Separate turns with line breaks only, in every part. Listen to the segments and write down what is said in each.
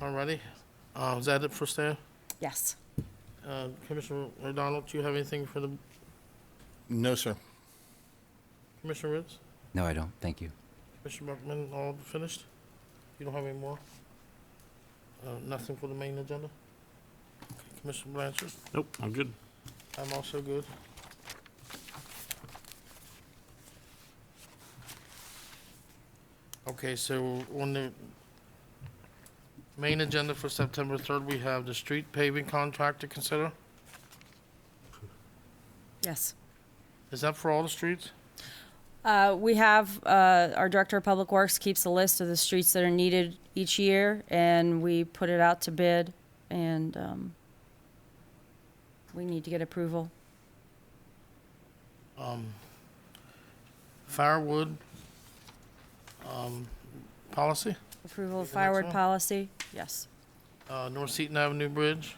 Alrighty, uh, is that it for staff?
Yes.
Uh, Commissioner O'Donnell, do you have anything for the,
No, sir.
Commissioner Ritz?
No, I don't. Thank you.
Commissioner Buckman, all finished? You don't have any more? Uh, nothing for the main agenda? Commissioner Blanchard?
Nope, I'm good.
I'm also good. Okay, so on the main agenda for September third, we have the street paving contract to consider.
Yes.
Is that for all the streets?
Uh, we have, uh, our Director of Public Works keeps a list of the streets that are needed each year, and we put it out to bid, and, um, we need to get approval.
Um, Firewood, um, policy,
Approval of
the next
firewood
one?
policy? Yes,
uh, North Seaton Avenue Bridge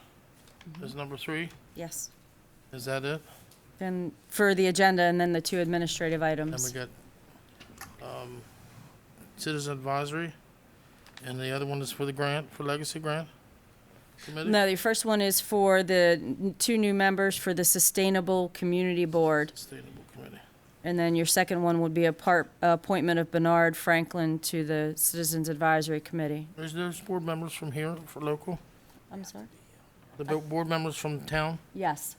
is number three.
yes.
Is that it?
And for the agenda, and then the two administrative
Then we
items.
got, um, citizen advisory, and the other one is for the grant, for legacy grant committee?
No, the first one is for the n- two new members for the Sustainable Community Board.
Sustainable committee.
And then your second one would be a part, appointment of Bernard Franklin to the Citizens Advisory Committee.
There's, there's board members from here, for local,
I'm sorry?
the bo- board members from town,
Yes.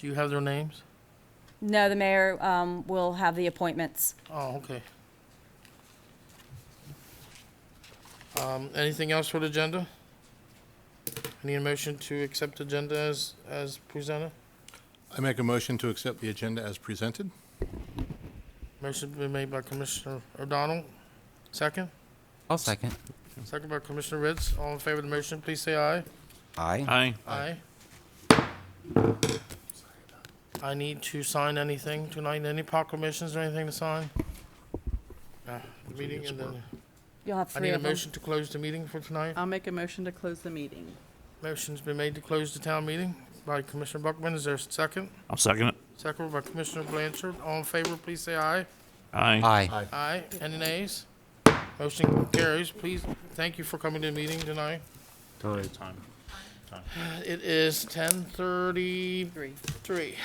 do you have their names?
No, the mayor um, will have the appointments.
Oh, okay. Um, anything else for the agenda? Any motion to accept agenda as, as presented?
I make a motion to accept the agenda as presented.
Motion been made by Commissioner O'Donnell, second?
I'll second.
Second by Commissioner Ritz. All in favor of the motion, please say aye.
Aye.
Aye.
Aye. I need to sign anything tonight, any proclamations or anything to sign? Uh, the Meeting and then,
You'll have
I
three
need a
of them.
motion to close the meeting for tonight.
I'll make a motion to close the meeting.
Motion's been made to close the town meeting by Commissioner Buckman. Is there a second?
I'll second it.
Second by Commissioner Blanchard. All in favor, please say aye.
Aye.
Aye.
Aye. Any nays? Motion carries. Please, thank you for coming to the meeting tonight.
Time.
It is ten thirty
Three.
Three.